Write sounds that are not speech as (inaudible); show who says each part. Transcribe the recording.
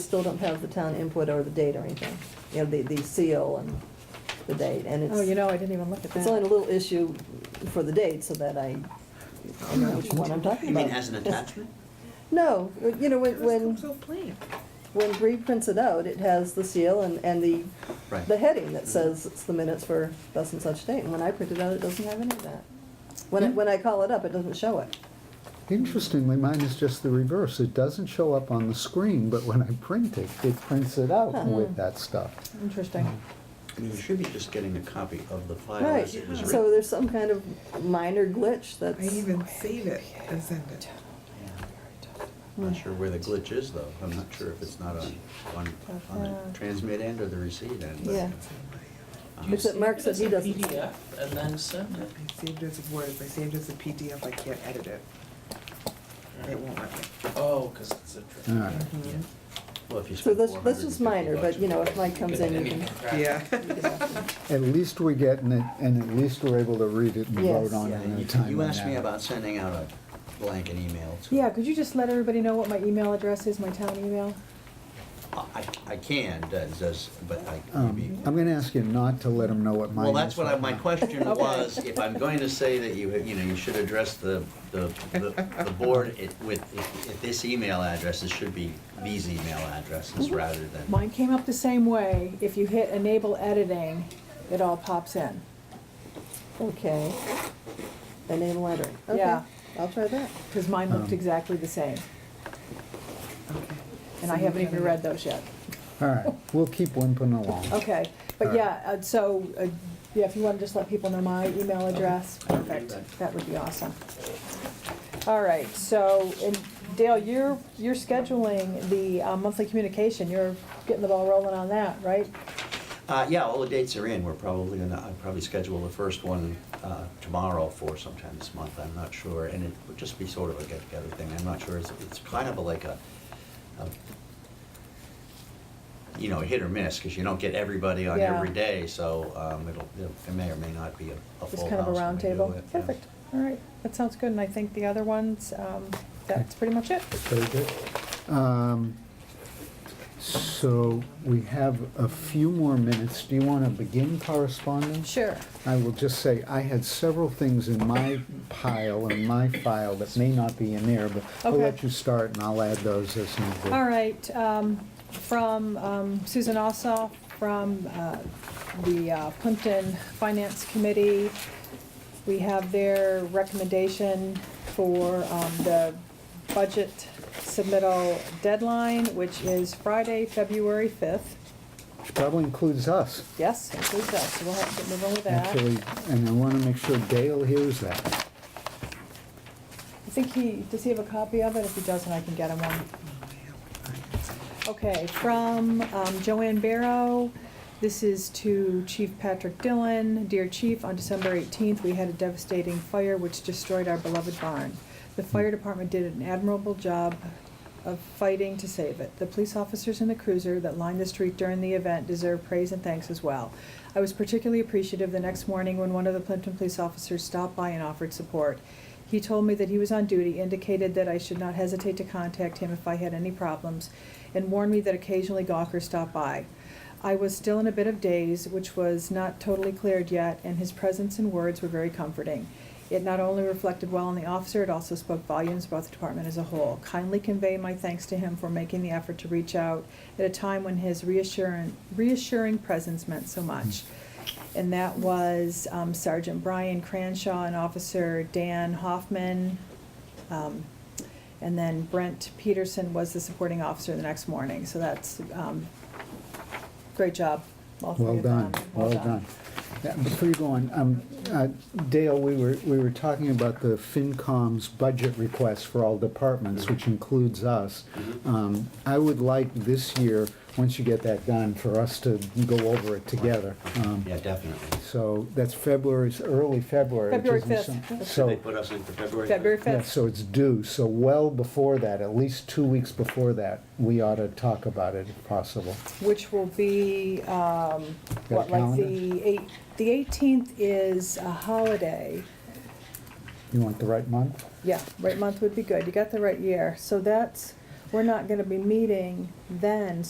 Speaker 1: still don't have the town input or the date or anything, you know, the, the seal and the date, and
Speaker 2: Oh, you
Speaker 1: it's,
Speaker 2: know, I didn't even look at
Speaker 1: it's only a
Speaker 2: that.
Speaker 1: little issue for the date, so that I, I know which one I'm talking
Speaker 3: You
Speaker 1: about.
Speaker 3: mean as an attachment?
Speaker 1: (laughs) No, you know, when, when,
Speaker 2: so plain.
Speaker 1: when Bree prints it out, it has the seal and, and the,
Speaker 3: Right.
Speaker 1: the heading that says it's the minutes for thus and such date, and when I print it out, it doesn't have any of that. When,
Speaker 2: Hmm.
Speaker 1: I- when I call it up, it doesn't show it.
Speaker 4: Interestingly, mine is just the reverse. It doesn't show up on the screen, but when I print it, it prints it out
Speaker 2: Uh-huh.
Speaker 4: with that stuff.
Speaker 2: Interesting.
Speaker 3: I mean, you should be just getting a copy of the file
Speaker 1: Right,
Speaker 3: as it was
Speaker 1: so
Speaker 3: written.
Speaker 1: there's some kind of minor glitch
Speaker 5: I
Speaker 1: that's,
Speaker 5: even save it and send it.
Speaker 3: Yeah. Not sure where the glitch is, though. I'm not sure if it's not on, on, on the transmit end or the receive end. but-
Speaker 1: Yeah.
Speaker 3: Uh-huh.
Speaker 1: It's- Except Mark said he doesn't.
Speaker 6: Save it as a PDF and then send it.
Speaker 5: I saved it as words, I saved it as a PDF, I can't edit it. It won't let me.
Speaker 6: Oh, because it's a draft.
Speaker 4: All right.
Speaker 1: Mm-hmm.
Speaker 3: Well, if you
Speaker 1: so
Speaker 3: spend
Speaker 1: that's, that's just
Speaker 3: 450
Speaker 1: minor,
Speaker 3: bucks
Speaker 1: but you know, if Mike comes in, you can.
Speaker 5: Yeah.
Speaker 4: At least we're getting it, and at least we're able to read it and
Speaker 1: Yes.
Speaker 4: vote on
Speaker 3: Yeah,
Speaker 4: it in a
Speaker 3: you-
Speaker 4: timely
Speaker 3: You asked me
Speaker 4: manner.
Speaker 3: about sending out a blank an email to.
Speaker 2: Yeah, could you just let everybody know what my email address is, my town email?
Speaker 3: I, I can, does, does, but I, maybe.
Speaker 4: Um, I'm gonna ask you not to let them know what mine is.
Speaker 3: Well, that's what I, my question
Speaker 2: Okay.
Speaker 3: was, if I'm going to say that you, you know, you should address the, the, the the board it- with, if- if this email address, it should be these email addresses rather than.
Speaker 2: Mine came up the same way. If you hit enable editing, it all pops in.
Speaker 1: Okay. Enable lettering. Okay.
Speaker 2: Yeah.
Speaker 1: I'll try that.
Speaker 2: Because mine looked
Speaker 4: Um.
Speaker 2: exactly the same.
Speaker 5: Okay.
Speaker 2: And I haven't even read those yet.
Speaker 4: All right, we'll keep whimpering along.
Speaker 2: Okay, but
Speaker 4: All right.
Speaker 2: yeah, uh, so, uh, yeah, if you want to just let people know my email address, perfect, that would be awesome. All right, so, and Dale, you're, you're scheduling the uh, monthly communication, you're getting the ball rolling on that, right?
Speaker 3: Uh, yeah, all the dates are in, we're probably gonna, I'll probably schedule the first one, uh, tomorrow for sometime this month, I'm not sure. And it would just be sort of a get-together thing, I'm not sure, it's, it's kind of like a, a- you know, hit or miss, because you don't get everybody on
Speaker 2: Yeah.
Speaker 3: every day, so, um, it'll, it may or may not be a a full house.
Speaker 2: Just kind of a
Speaker 3: when we do
Speaker 2: roundtable.
Speaker 3: it, yeah.
Speaker 2: Perfect, all right, that sounds good, and I think the other ones, um, that's pretty much it.
Speaker 4: Very good. Um, So we have a few more minutes. Do you want to begin correspondence?
Speaker 2: Sure.
Speaker 4: I will just say, I had several things in my pile, in my file, that may not be in there, but I'll
Speaker 2: Okay.
Speaker 4: let you start and I'll add those as needed.
Speaker 2: All right, um, from um, Susan Ossoff, from uh, the uh, Plimpton Finance Committee, we have their recommendation for um, the budget submittal deadline, which is Friday, February 5th.
Speaker 4: Which probably includes us,
Speaker 2: Yes, includes us, so we'll have to get moving with that.
Speaker 4: actually, and I want to make sure Dale hears that.
Speaker 2: I think he, does he have a copy of it? If he doesn't, I can get him one. Okay, from um, Joanne Barrow, this is to Chief Patrick Dillon. Dear Chief, on December 18th, we had a devastating fire which destroyed our beloved barn. The fire department did an admirable job of fighting to save it. The police officers in the cruiser that lined the street during the event deserve praise and thanks as well. I was particularly appreciative the next morning when one of the Plimpton police officers stopped by and offered support. He told me that he was on duty, indicated that I should not hesitate to contact him if I had any problems, and warned me that occasionally gawkers stopped by. I was still in a bit of daze, which was not totally cleared yet, and his presence and words were very comforting. It not only reflected well on the officer, it also spoke volumes about the department as a whole. Kindly convey my thanks to him for making the effort to reach out at a time when his reassuring, reassuring presence meant so much. And that was um, Sergeant Brian Cranshaw and Officer Dan Hoffman. Um, And then Brent Peterson was the supporting officer the next morning. So that's, um, great job. all three
Speaker 4: Well
Speaker 2: of
Speaker 4: done,
Speaker 2: them.
Speaker 4: well done. Yeah, Before you go on, um, uh, Dale, we were, we were talking about the FinCom's budget request for all departments, which includes us. Um, I would like this year, once you get that done, for us to go over it together. Um,
Speaker 3: Yeah, definitely.
Speaker 4: So that's February's, early February. which
Speaker 2: February
Speaker 4: isn't
Speaker 2: 5th.
Speaker 4: some-
Speaker 3: So they
Speaker 4: So,
Speaker 3: put us in for February?
Speaker 2: February
Speaker 4: yeah,
Speaker 2: 5th.
Speaker 4: so it's due, so well before that, at least two weeks before that, we ought to talk about it if possible.
Speaker 2: which will be, um,
Speaker 4: Got a
Speaker 2: what, like the eight, the 18th is a holiday.
Speaker 4: You want the right month?
Speaker 2: Yeah, right month would be good. You got the right year. So that's, we're not gonna be meeting then,